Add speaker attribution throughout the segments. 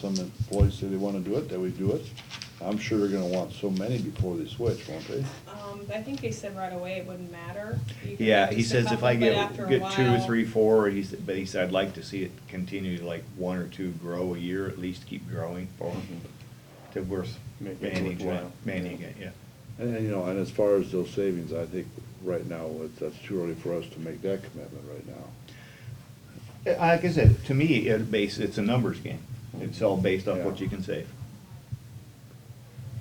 Speaker 1: some employees say they wanna do it, that we do it. I'm sure they're gonna want so many before they switch, won't they?
Speaker 2: Um, I think they said right away it wouldn't matter. You could
Speaker 3: Yeah, he
Speaker 2: reduce a
Speaker 3: says if
Speaker 2: couple,
Speaker 3: I
Speaker 2: but
Speaker 3: get,
Speaker 2: after a
Speaker 3: get two,
Speaker 2: while-
Speaker 3: three, four, he said, but he said, I'd like to see it continue to like one or two grow a year, at least keep growing for him. To worth
Speaker 4: Mm-hmm. Make it
Speaker 3: managing, it-
Speaker 4: worthwhile.
Speaker 3: managing it, yeah.
Speaker 1: And, and, you know, and as far as those savings, I think right now, it- that's too early for us to make that commitment right now.
Speaker 3: Uh, Like I said, to me, it base, it's a numbers game. It's all based off what
Speaker 1: Yeah.
Speaker 3: you can save.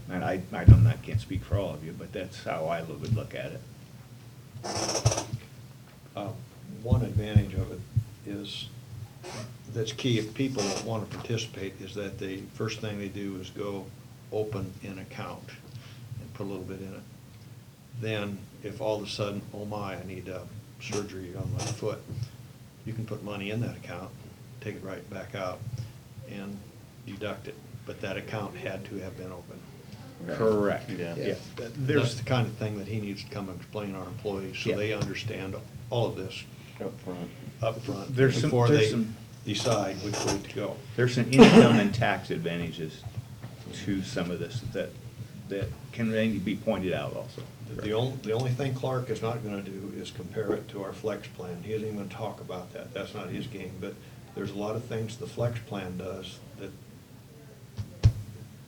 Speaker 3: And I, I don't, I can't speak for all of you, but that's how I lo- would look at it.
Speaker 5: Uh, One advantage of it is, that's key, if people want to participate, is that they, first thing they do is go open an account and put a little bit in it. Then, if all of a sudden, oh my, I need uh, surgery on my foot, you can put money in that account, take it right back out, and deduct it. But that account had to have been open.
Speaker 3: Correct.
Speaker 4: Yeah.
Speaker 3: Yeah.
Speaker 5: That- That's the kind of thing that he needs to come and explain to our employees, so
Speaker 3: Yeah.
Speaker 5: they understand all of this
Speaker 4: up front.
Speaker 5: upfront
Speaker 3: There's some-
Speaker 5: before
Speaker 3: there's
Speaker 5: they
Speaker 3: some-
Speaker 5: decide which way to go.
Speaker 3: There's some income and tax advantages to some of this that, that can maybe be pointed out also.
Speaker 5: The only, the only thing Clark is not gonna do is compare it to our flex plan. He isn't even gonna talk about that. That's not his game, but there's a lot of things the flex plan does that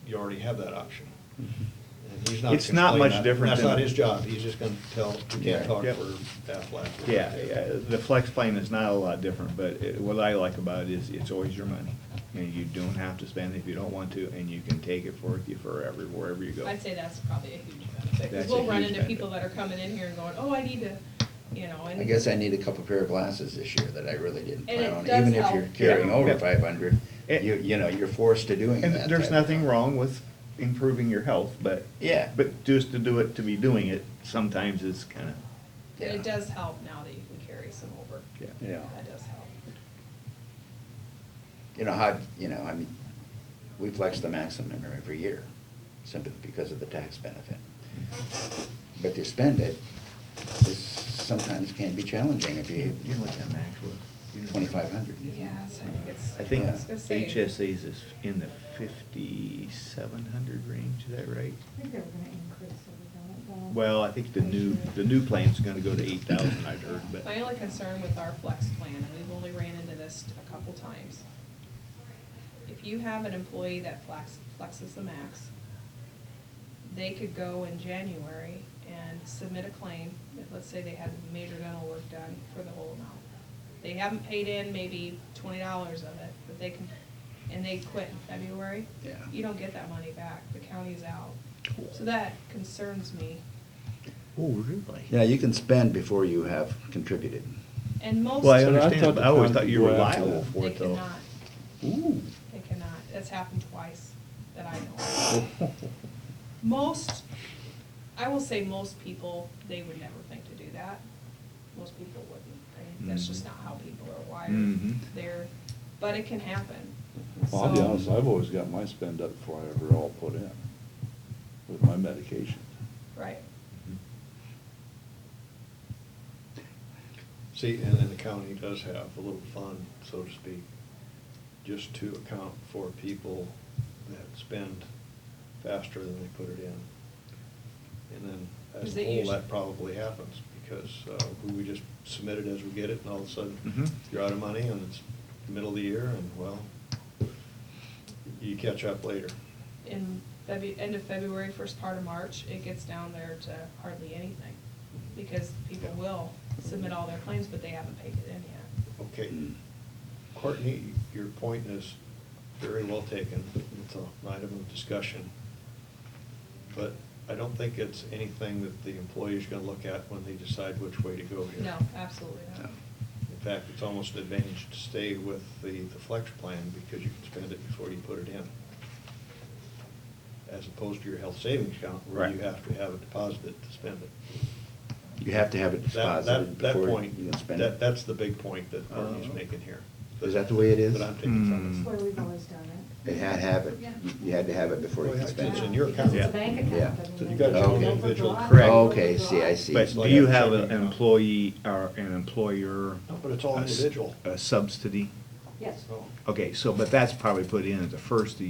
Speaker 5: you already have that option. And he's not.
Speaker 3: Mm-hmm. It's not much
Speaker 5: explaining that.
Speaker 3: different
Speaker 5: That's
Speaker 3: than-
Speaker 5: not his job. He's just gonna tell, you
Speaker 3: Yeah.
Speaker 5: can't talk
Speaker 3: Yep.
Speaker 5: for Aflac.
Speaker 3: Yeah, yeah, the flex plan is not a lot different, but it- what I like about it is it's always your money. And you don't have to spend it if you don't want to, and you can take it for you forever, wherever you go.
Speaker 2: I'd say that's probably a huge benefit,
Speaker 3: That's
Speaker 2: because
Speaker 3: a
Speaker 2: we'll run
Speaker 3: huge
Speaker 2: into people that
Speaker 3: benefit.
Speaker 2: are coming in here and going, oh, I need to, you know, and.
Speaker 6: I guess I need a couple pair of glasses this year that I really didn't
Speaker 2: And
Speaker 6: plan
Speaker 2: it
Speaker 6: on,
Speaker 2: does
Speaker 6: even if you're
Speaker 2: help.
Speaker 6: carrying
Speaker 3: Yeah.
Speaker 6: over
Speaker 3: Yeah.
Speaker 6: five hundred.
Speaker 3: It-
Speaker 6: You, you know, you're forced to doing that.
Speaker 3: And there's
Speaker 6: type of
Speaker 3: nothing
Speaker 6: thing.
Speaker 3: wrong with improving your health, but.
Speaker 6: Yeah.
Speaker 3: But just to do it, to be doing it, sometimes is kind of,
Speaker 2: And
Speaker 6: Yeah.
Speaker 2: it does help now that you can carry some over.
Speaker 3: yeah.
Speaker 1: Yeah.
Speaker 2: That does help.
Speaker 6: You know, how, you know, I mean, we flex the maximum every year, simply because of the tax benefit. But to spend it is, sometimes can be challenging if you,
Speaker 3: You know what that max was? You know.
Speaker 6: twenty-five hundred.
Speaker 2: Yes, I think it's.
Speaker 3: I think
Speaker 2: was gonna say-
Speaker 3: HSA's is in the fifty-seven hundred range, is that right?
Speaker 7: I think they were gonna increase it, but I don't know.
Speaker 3: Well, I think the new, the new plan's gonna go to eight thousand, I'd heard, but.
Speaker 2: My only concern with our flex plan, and we've only ran into this a couple times. If you have an employee that flex, flexes the max, they could go in January and submit a claim, if, let's say they had major dental work done for the whole amount. They haven't paid in maybe twenty dollars of it, but they can, and they quit in February.
Speaker 6: Yeah.
Speaker 2: You don't get that money back, the county's out. So that concerns me.
Speaker 3: Oh, really?
Speaker 6: Yeah, you can spend before you have contributed.
Speaker 2: And most.
Speaker 3: Well, I
Speaker 1: So I thought
Speaker 3: understand, but I always
Speaker 1: the
Speaker 3: thought you were
Speaker 1: county would go after
Speaker 3: liable
Speaker 1: that.
Speaker 3: for
Speaker 2: They
Speaker 3: it though.
Speaker 2: cannot,
Speaker 6: Ooh.
Speaker 2: they cannot. It's happened twice that I know
Speaker 1: Oh.
Speaker 2: of. Most, I will say most people, they would never think to do that. Most people wouldn't. I mean, That's just
Speaker 3: Mhm.
Speaker 2: not how people are wired.
Speaker 3: Mhm.
Speaker 2: They're, but it can happen.
Speaker 1: Well, I'll be
Speaker 2: So-
Speaker 1: honest, I've always got my spend up before I ever all put in with my medication.
Speaker 2: Right.
Speaker 5: See, and then the county does have a little fund, so to speak, just to account for people that spend faster than they put it in. And then as
Speaker 2: Is
Speaker 5: a
Speaker 2: it
Speaker 5: whole,
Speaker 2: usu-
Speaker 5: that probably happens because uh, we- we just submit it as we get it and all of a sudden
Speaker 3: Mhm.
Speaker 5: you're out of money and it's middle of the year and well, you catch up later.
Speaker 2: In February, end of February, first part of March, it gets down there to hardly anything. Because people will submit all their claims, but they haven't paid it in yet.
Speaker 5: Okay,
Speaker 6: Mm.
Speaker 5: Courtney, your point is very well taken. It's an item of discussion. But I don't think it's anything that the employee's gonna look at when they decide which way to go here.
Speaker 2: No, absolutely not.
Speaker 5: In fact, it's almost an advantage to stay with the, the flex plan because you can spend it before you put it in. As opposed to your health savings account where you
Speaker 3: Right.
Speaker 5: have to have it deposited to spend it.
Speaker 6: You have to have it
Speaker 5: That, that,
Speaker 6: deposited
Speaker 5: that
Speaker 6: before
Speaker 5: point,
Speaker 6: you can spend
Speaker 5: that,
Speaker 6: it.
Speaker 5: that's the big point that Courtney's
Speaker 6: Oh.
Speaker 5: making here.
Speaker 6: Is that the way it is?
Speaker 5: That I'm taking from it.
Speaker 3: Hmm.
Speaker 7: That's where we've always done it.
Speaker 6: They had to have it,
Speaker 7: Yeah.
Speaker 6: you had to have it before you
Speaker 5: Well,
Speaker 6: could
Speaker 5: that's
Speaker 6: spend it.
Speaker 5: good. It's in your account.
Speaker 7: Because
Speaker 3: Yeah.
Speaker 7: It's a bank account.
Speaker 6: Yeah.
Speaker 7: I mean,
Speaker 5: So you
Speaker 7: they-
Speaker 5: got
Speaker 6: your own
Speaker 7: they
Speaker 5: individual-
Speaker 7: overdraw,
Speaker 3: Correct.
Speaker 6: Okay, see, I see.
Speaker 3: Mm-hmm. But
Speaker 5: It's
Speaker 3: do
Speaker 5: like
Speaker 3: you
Speaker 5: a
Speaker 3: have an
Speaker 5: checking account.
Speaker 3: employee or an employee or?
Speaker 5: No, but it's all
Speaker 3: a s-
Speaker 5: individual.
Speaker 3: A subsidy?
Speaker 7: Yes.
Speaker 5: Oh.
Speaker 3: Okay, so, but that's probably put in at the first of the